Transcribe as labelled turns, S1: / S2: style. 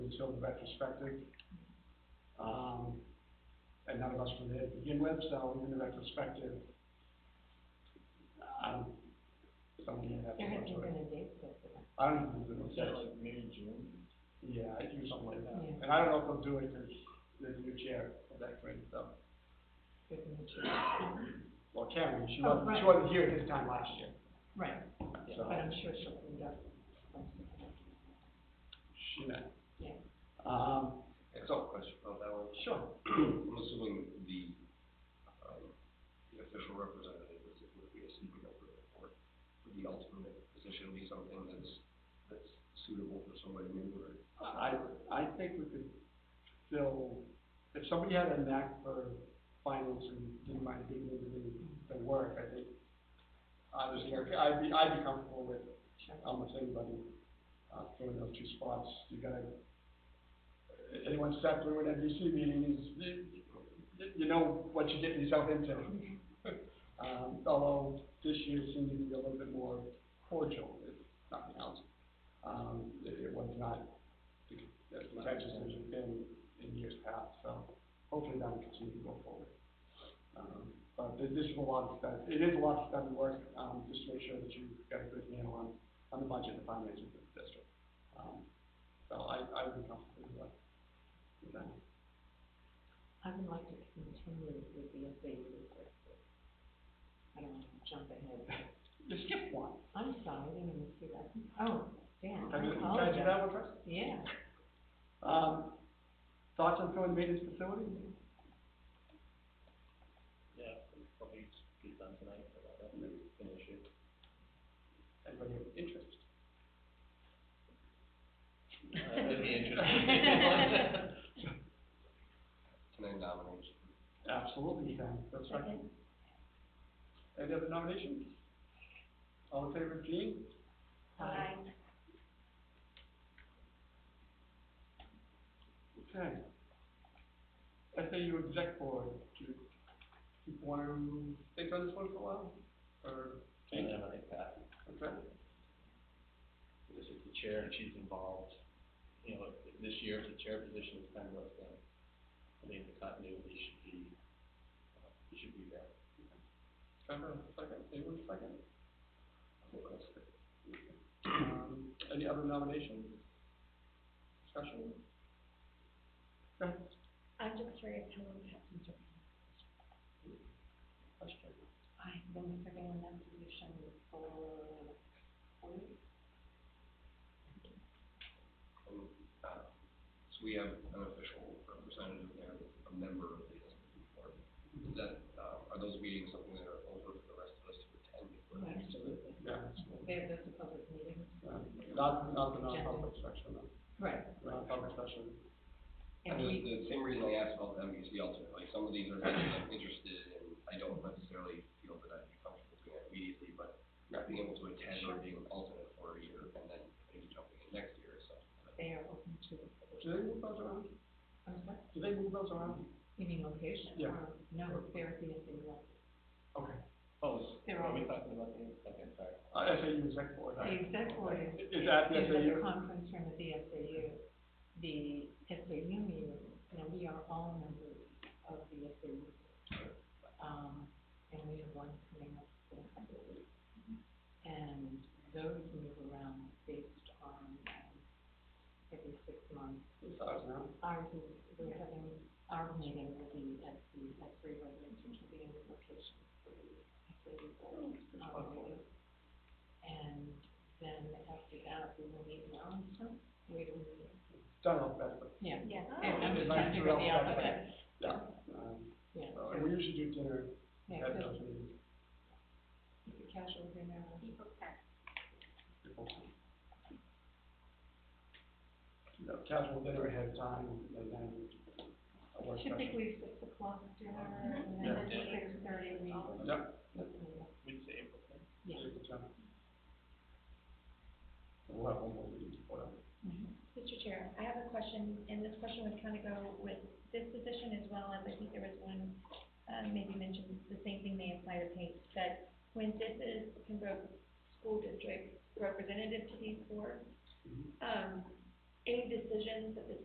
S1: still retrospective. Um, and none of us were there to begin with, so even the retrospective, I don't, someone may have to
S2: There
S1: look
S2: hasn't
S1: to
S2: been
S1: it.
S2: a date set for that.
S1: I don't even know if
S3: Is
S1: that's
S3: that like May, June?
S1: yeah, I do something like that.
S2: Yeah.
S1: And I don't know if they'll do it because there's a new chair of that grade, so.
S2: There's no change.
S1: Well, Karen, she
S2: Oh,
S1: wasn't, she
S2: right.
S1: wasn't here this time last year,
S2: Right,
S1: so
S2: but I'm sure she'll clean it up.
S1: she met.
S2: Yeah.
S1: Um,
S4: It's all question about that one.
S1: sure.
S4: I'm assuming the, um, the official representative is, would be a secret over the E board. Would the ultimate position be something that's, that's suitable for somebody new or?
S1: I, I think we could fill, if somebody had a knack for finance and didn't mind being able to do the work, I think, I was here, I'd be, I'd be comfortable with
S2: Sure.
S1: almost anybody, uh, filling those two spots. You gotta, anyone sat through an NBC meeting is, you- you, you know what you're getting yourself into. Um, although this year seemed to be a little bit more cordial, if nothing else. Um, it, it was not as contentious as it's been in years past, so hopefully that will continue to go forward. Um, but th- this is a lot of stuff, it is a lot of stuff and work, um, just to make sure that you've got a good handle on, on the budget and finances of the district. Um, so I, I would be comfortable with that. With that.
S2: I would like to continue with the SAU request. I don't want to jump ahead.
S1: You skipped one.
S2: I'm sorry, I didn't even see that. Oh,
S1: Can
S2: Dan,
S1: I do- can I
S2: I
S1: do
S2: apologize.
S1: that one first?
S2: Yeah,
S1: Um, thoughts on filling the maintenance facility?
S3: Yeah, probably just be done tonight, but I don't
S1: Anybody
S3: finish it.
S1: have interest?
S3: Uh, It'd be interesting.
S4: Can I nominate? you?
S1: Absolutely, you can. That's right.
S2: Second.
S1: Any other nominations? All in favor of Jean?
S2: Aye.
S1: Okay. SAU exec board, do you people want to stay on this one for a while? Or
S3: I
S1: change it?
S3: nominate Pat.
S1: Okay.
S3: Because if the chair, and she's involved, you know, if- if this year, the chair position is kind of less than, I think the continuity should be, uh, it should be there.
S1: Trevor, second, anyone second? Um, any other nominations? Discussion? Okay,
S5: I'm just curious how long Captain's been.
S1: question.
S5: I've been serving in that position for four years.
S4: And, uh, so we have an official representative there, that's a member of the SBA board. Is that, uh, are those meetings something that are open for the rest of us to attend? or-
S2: Absolutely.
S1: Yeah,
S2: There, that's a public meeting.
S1: uh, not, not the non-public section, no.
S2: Right.
S1: non-public session.
S4: And
S2: And
S4: the,
S2: we,
S4: the same reason I asked about the MVC alternate, like, some of these are things I'm interested in, I don't necessarily feel that I'd be comfortable doing it immediately, but not being able to attend or being an alternate for a year, and then maybe jumping in next year or something. but-
S2: they are open to,
S1: Do they move those around?
S2: I'm sorry,
S1: Do they move those around?
S2: you mean location?
S1: Yeah.
S2: or- No, they're at the SAU.
S1: Okay.
S3: Oh,
S2: They're
S3: are we
S2: all-
S3: talking about the, okay, sorry.
S1: Uh, SAU exec board.
S2: The exec board is
S1: Is that the
S2: There's a
S1: SAU?
S2: conference room at the SAU, the SAU meeting, and we are all members of the SAU. Um, and we have one coming up in a couple of weeks. And those move around based on, um, every six months.
S1: It's ours now.
S2: Ours is, we're having, our meeting will be at the, at three residential convening location for the SAU board. um, meeting. And then after that, we will meet in Arlington, wait a minute.
S1: Done alphabetically.
S2: Yeah.
S5: Yeah.
S2: And I'm
S1: It's
S2: just
S1: nice
S2: trying to
S1: to
S2: figure out the
S1: know that.
S2: alphabet.
S1: Yeah. Um,
S2: Yeah,
S1: so,
S2: so,
S1: and we usually do dinner
S2: yeah,
S1: at
S2: so
S1: those meetings.
S2: it's a casual dinner.
S1: You know, casual dinner ahead of time and then uh, a work session.
S5: Typically six o'clock dinner, and
S2: Mm-hmm.
S1: Yeah.
S5: then six thirty, we all.
S1: Yep.
S3: We'd say April tenth.
S2: Yeah.
S1: April 10th. We'll have one more meeting before that.
S2: Mhm.
S5: Mr. Chair, I have a question, and this question would kind of go with this position as well, as I think there was one, uh, maybe mentioned, the same thing may apply to Pace, that when this is Pembroke School District representative to these boards,
S1: Mhm.
S5: um, any decisions that the